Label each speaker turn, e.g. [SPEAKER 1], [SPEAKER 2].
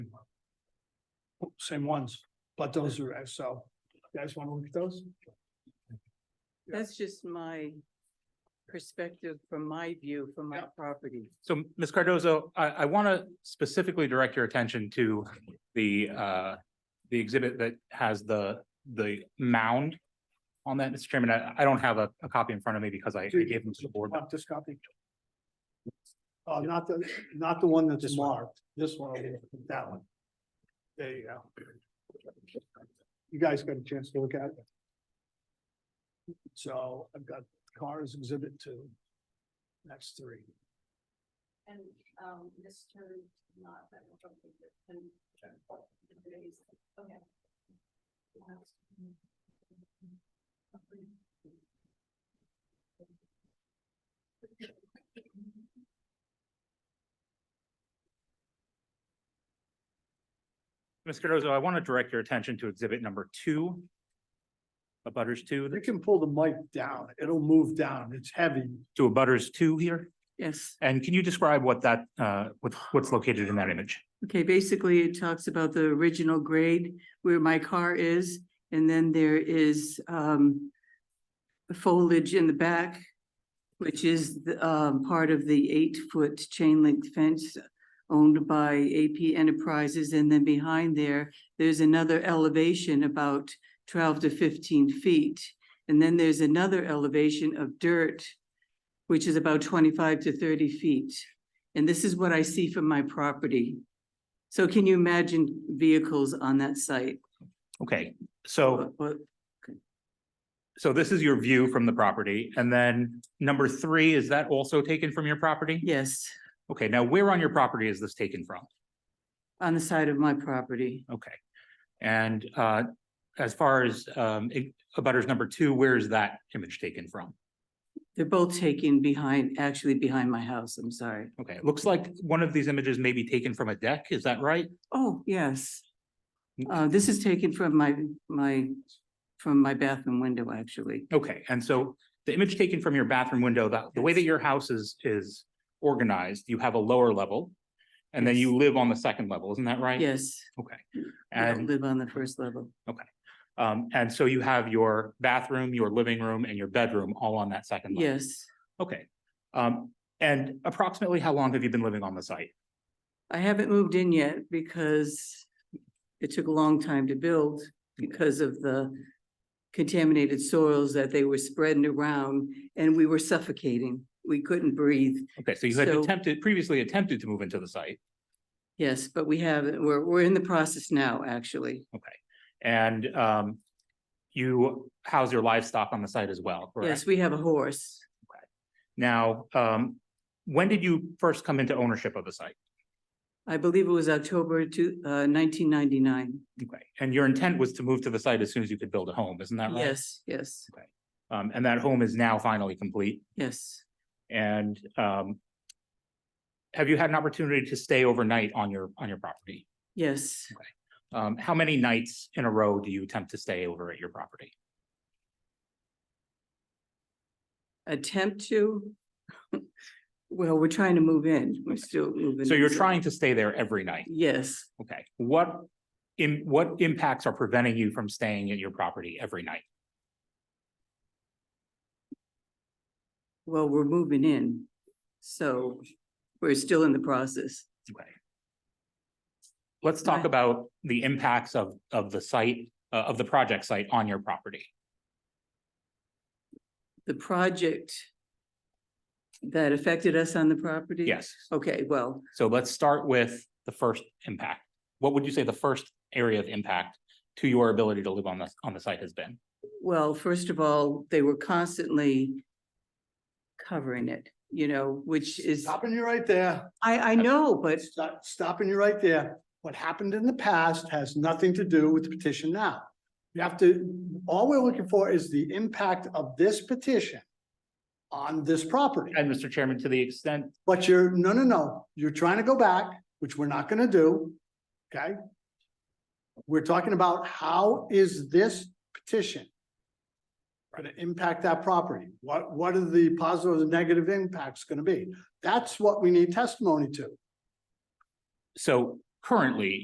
[SPEAKER 1] same ones, but those are, uh, so, you guys wanna look at those? Yeah.
[SPEAKER 2] That's just my perspective from my view, from my
[SPEAKER 1] Yeah.
[SPEAKER 2] property.
[SPEAKER 3] So Ms. Cardozo, I, I want to specifically direct your attention to the, uh, the exhibit that has the, the mound on that, Mr. Chairman. I, I don't have a, a copy in front of me because I I gave them to the board.
[SPEAKER 1] Want this copy? Uh, not the, not the one that's
[SPEAKER 3] This one.
[SPEAKER 1] marked, this one, over here, that one. There you go. You guys got a chance to look at it? So I've got cars exhibit two. That's three.
[SPEAKER 4] And, um, this turned not that much of a, and. Okay.
[SPEAKER 3] Ms. Cardozo, I want to direct your attention to exhibit number two. A butters two,
[SPEAKER 1] You can pull the mic down, it'll move down, it's heavy.
[SPEAKER 3] to a butters two here.
[SPEAKER 2] Yes.
[SPEAKER 3] And can you describe what that, uh, what's, what's located in that image?
[SPEAKER 2] Okay, basically it talks about the original grade where my car is, and then there is um. Foliage in the back, which is the um part of the eight-foot chain link fence. Owned by AP Enterprises, and then behind there, there's another elevation about twelve to fifteen feet. And then there's another elevation of dirt, which is about twenty-five to thirty feet. And this is what I see from my property. So can you imagine vehicles on that site?
[SPEAKER 3] Okay, so.
[SPEAKER 2] What- what-
[SPEAKER 3] So this is your view from the property, and then number three, is that also taken from your property?
[SPEAKER 2] Yes,
[SPEAKER 3] Okay, now where on your property is this taken from?
[SPEAKER 2] on the side of my property.
[SPEAKER 3] Okay. And uh, as far as um, it- abutters number two, where is that image taken from?
[SPEAKER 2] They're both taken behind, actually behind my house, I'm sorry.
[SPEAKER 3] Okay, it looks like one of these images may be taken from a deck, is that right?
[SPEAKER 2] Oh, yes.
[SPEAKER 3] Mm.
[SPEAKER 2] Uh, this is taken from my, my, from my bathroom window, actually.
[SPEAKER 3] Okay, and so the image taken from your bathroom window, that, the way that
[SPEAKER 2] Yes.
[SPEAKER 3] your house is, is organized, you have a lower level. And then you live on the second level, isn't that right?
[SPEAKER 2] Yes,
[SPEAKER 3] Okay.
[SPEAKER 2] I
[SPEAKER 3] And
[SPEAKER 2] don't live on the first level.
[SPEAKER 3] Um, and so you have your bathroom, your living room and your bedroom all on that second level?
[SPEAKER 2] Yes,
[SPEAKER 3] Okay. Um, and approximately how long have you been living on the site?
[SPEAKER 2] I haven't moved in yet because it took a long time to build because of the contaminated soils that they were spreading around and we were suffocating. We couldn't breathe.
[SPEAKER 3] Okay, so you had
[SPEAKER 2] So-
[SPEAKER 3] attempted, previously attempted to move into the site
[SPEAKER 2] Yes, but we have, we're, we're in the process now, actually.
[SPEAKER 3] and, um, you house your livestock on the site as well,
[SPEAKER 2] Yes,
[SPEAKER 3] correct?
[SPEAKER 2] we have a horse.
[SPEAKER 3] Now, um, when did you first come into ownership of the site?
[SPEAKER 2] I believe it was October two, uh, nineteen ninety-nine.
[SPEAKER 3] Okay, and your intent was to move to the site as soon as you could build a home, isn't that right?
[SPEAKER 2] Yes, yes,
[SPEAKER 3] Um, and that home is now finally complete?
[SPEAKER 2] yes.
[SPEAKER 3] And um. Have you had an opportunity to stay overnight on your, on your property?
[SPEAKER 2] Yes,
[SPEAKER 3] Um, how many nights in a row do you attempt to stay over at your property?
[SPEAKER 2] attempt to. Well, we're trying to move in. We're still moving.
[SPEAKER 3] So
[SPEAKER 2] in,
[SPEAKER 3] you're trying to stay there every night,
[SPEAKER 2] Yes,
[SPEAKER 3] okay? What in, what impacts are preventing you from staying at your property every night?
[SPEAKER 2] well, we're moving in. So we're still in the process.
[SPEAKER 3] Okay. Let's talk
[SPEAKER 2] Right.
[SPEAKER 3] about the impacts of, of the site, uh, of the project site on your property.
[SPEAKER 2] The project that affected us on the property?
[SPEAKER 3] Yes,
[SPEAKER 2] Okay, well,
[SPEAKER 3] so let's start with the first impact. What would you say the first area of impact to your ability to live on the, on the site has been?
[SPEAKER 2] Well, first of all, they were constantly covering it, you know, which is,
[SPEAKER 1] Stopping you right there.
[SPEAKER 2] I, I know, but
[SPEAKER 1] Stop- Stopping you right there. What happened in the past has nothing to do with the petition now. You have to, all we're looking for is the impact of this petition on this property.
[SPEAKER 3] And Mr. Chairman, to the extent,
[SPEAKER 1] But you're, no, no, no, you're trying to go back, which we're not gonna do, okay? We're talking about how is this petition gonna impact that property? What, what are the positive and negative impacts gonna be? That's what we need testimony to.
[SPEAKER 3] so currently,